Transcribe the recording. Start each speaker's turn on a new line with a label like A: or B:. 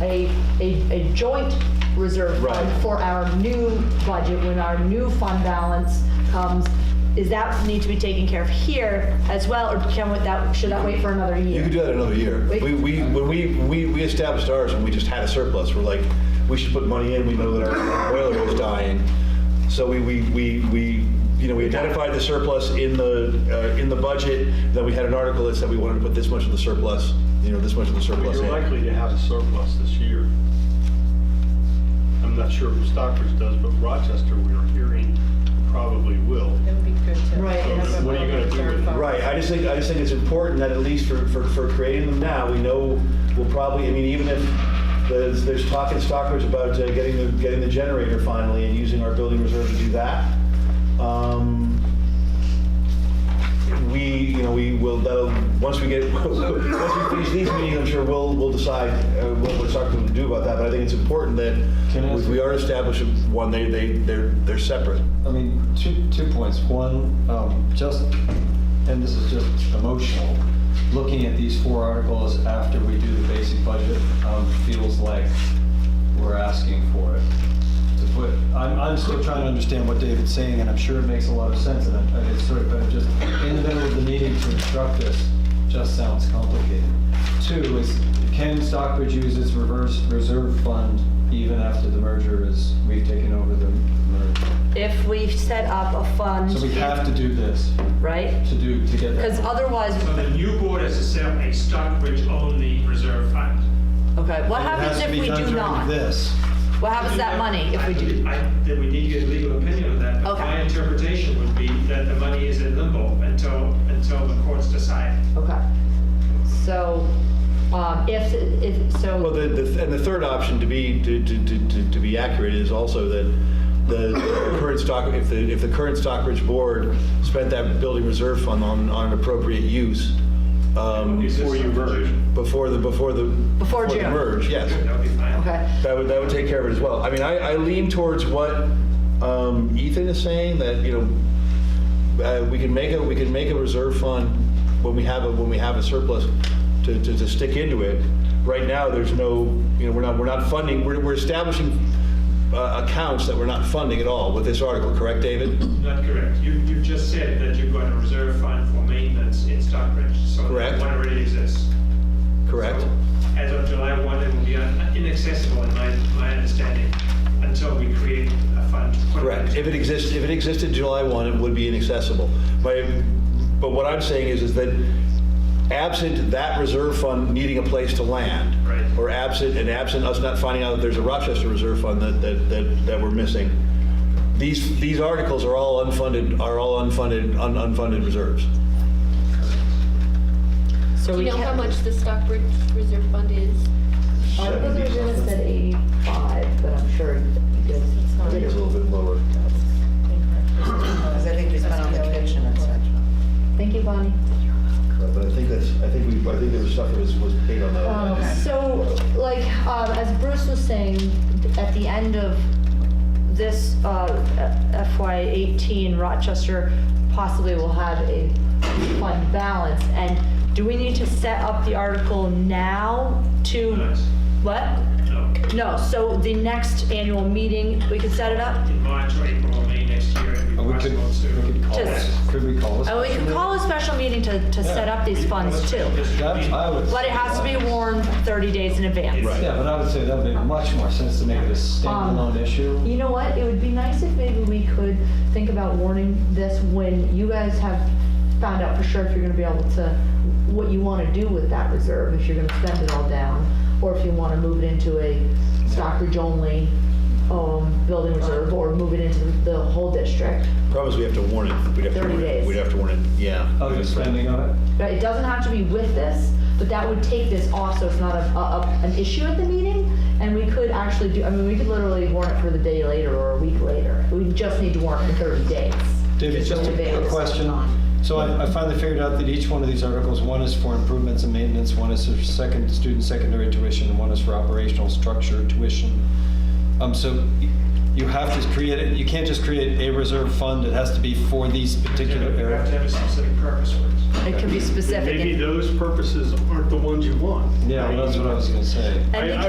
A: a, a, a joint reserve
B: Right.
A: fund for our new budget, when our new fund balance comes, is that need to be taken care of here as well, or can we- that, should that wait for another
B: You
A: year?
B: could do that another year.
A: Wait.
B: We, we, when we, we, we established ours when we just had a surplus, we're like, we should put money in, we know that our boiler is dying. So we, we, we, we, you know, we identified the surplus in the, uh, in the budget, then we had an article that said we wanted to put this much of the surplus, you know, this much of the surplus
C: You're
B: in.
C: likely to have a surplus this year. I'm not sure if Stockbridge does, but Rochester, we are hearing, probably will.
D: It would be good to.
A: Right,
D: have
C: So
D: a
C: what are you gonna do
D: reserve
C: with it?
D: fund.
B: Right, I just think, I just think it's important that at least for, for, for creating them now, we know we'll probably, I mean, even if there's, there's talk in Stockbridge about uh, getting the, getting the generator finally and using our building reserve to do that. um, We, you know, we will, that'll, once we get, once we finish these meetings, I'm sure we'll, we'll decide uh, what we're talking to do about that, but I think it's important that
E: Can I ask-
B: we are establishing one, they, they, they're, they're separate.
E: I mean, two, two points. One, um, just, and this is just emotional, looking at these four articles after we do the basic budget um, feels like we're asking for it. To put, I'm, I'm still trying to understand what David's saying, and I'm sure it makes a lot of sense, and I- I- it's sort of, but just in the middle of the meeting to instruct this just sounds complicated. Two is, can Stockbridge use its reverse reserve fund even after the merger is, we've taken over the merger?
A: If we set up a fund,
E: So we have to do this
A: right?
E: to do, to get
A: Because
E: that.
A: otherwise,
F: So the new board has to set up a Stockbridge-only reserve fund.
A: okay, what
E: It has
A: happens
E: to
A: if
E: be
A: we
E: done
A: do
E: during
A: not?
E: This.
A: What happens to that money if we do?
F: I- Then we need your legal opinion on that. but
A: Okay.
F: My interpretation would be that the money is in limbo until, until the courts decide.
A: Okay. So, um, if, if, so.
B: Well, the, the, and the third option to be, to, to, to, to- to be accurate is also that the current stock, if the, if the current Stockbridge board spent that building reserve fund on, on an appropriate use, um,
C: Before you merge.
B: before the, before the.
A: Before
B: the
A: June.
B: merge, yes.
F: That would be fine.
A: Okay.
B: That would, that would take care of it as well. I mean, I, I lean towards what um, Ethan is saying, that, you know, uh, we can make a, we can make a reserve fund when we have a, when we have a surplus to, to, to stick into it. Right now, there's no, you know, we're not, we're not funding, we're, we're establishing uh, accounts that we're not funding at all with this article, correct, David?
F: Not correct. You, you just said that you've got a reserve fund for maintenance in Stockbridge. So
B: Correct.
F: that one already exists.
B: Correct?
F: So As of July 1, it will be un- inaccessible in my, my understanding, until we create a fund. to put
B: Correct. If it exists, if it existed July 1, it would be inaccessible. But, but what I'm saying is, is that absent that reserve fund needing a place to land.
F: Right.
B: Or absent, and absent us not finding out that there's a Rochester reserve fund that, that, that that we're missing, these, these articles are all unfunded, are all unfunded, un- unfunded reserves.
A: So
G: Do
A: we
G: you know how
A: can't-
G: much the Stockbridge Reserve Fund is?
A: Articles are gonna set eighty-five, but I'm sure you guys.
B: I think it's a little bit lower.
D: Because I think we spent on the kitchen and such.
A: Thank you, Bonnie.
B: But I think that's, I think we, I think there was stuff that was, was paid on
A: Um,
D: Okay.
A: So, like, um, as Bruce was saying, at the end of this uh, FY eighteen, Rochester possibly will have a fund balance. And do we need to set up the article now to?
F: Nice.
A: What?
F: No.
A: No, so the next annual meeting, we can set it up?
F: in March or April or May next year, it'd be
E: Uh, We could,
F: possible
E: we could
F: to.
E: call
A: Just-
E: this, could we call this?
A: And Oh, we can call a special meeting to, to set up these funds too.
E: That, I would.
A: But it has to be warned thirty days in advance.
B: Right.
E: Yeah, but I would say that would make much more sense to make it a
A: Um,
E: standalone issue.
A: You know what, it would be nice if maybe we could think about warning this when you guys have found out for sure if you're gonna be able to, what you wanna do with that reserve, if you're gonna spend it all down, or if you wanna move it into a Stockbridge only, um, building reserve, or move it into the whole district.
B: Problem is, we have to warn it. We'd have to
A: 30
B: warn it.
A: days.
B: We'd have to warn it, yeah.
E: Oh, you're spending on it?
A: But it doesn't have to be with this, but that would take this off, so it's not a, a, a- an issue at the meeting. And we could actually do, I mean, we could literally warn it for the day later or a week later. We just need to warn it for thirty days.
E: David, just
A: to
E: a-
A: advance
E: a
A: it
E: question.
A: on.
E: So I I finally figured out that each one of these articles, one is for improvements and maintenance, one is for second, student secondary tuition, and one is for operational structure tuition. Um, so y- you have to create, it. you can't just create a reserve fund, it has to be for these
F: You
E: particular
F: have to
E: areas.
F: have a specific purpose for it.
A: It could be
C: Maybe
A: specific.
C: those purposes aren't the ones you want.
E: Yeah, well, that's what I was gonna say.
A: And
C: I-
A: we
C: I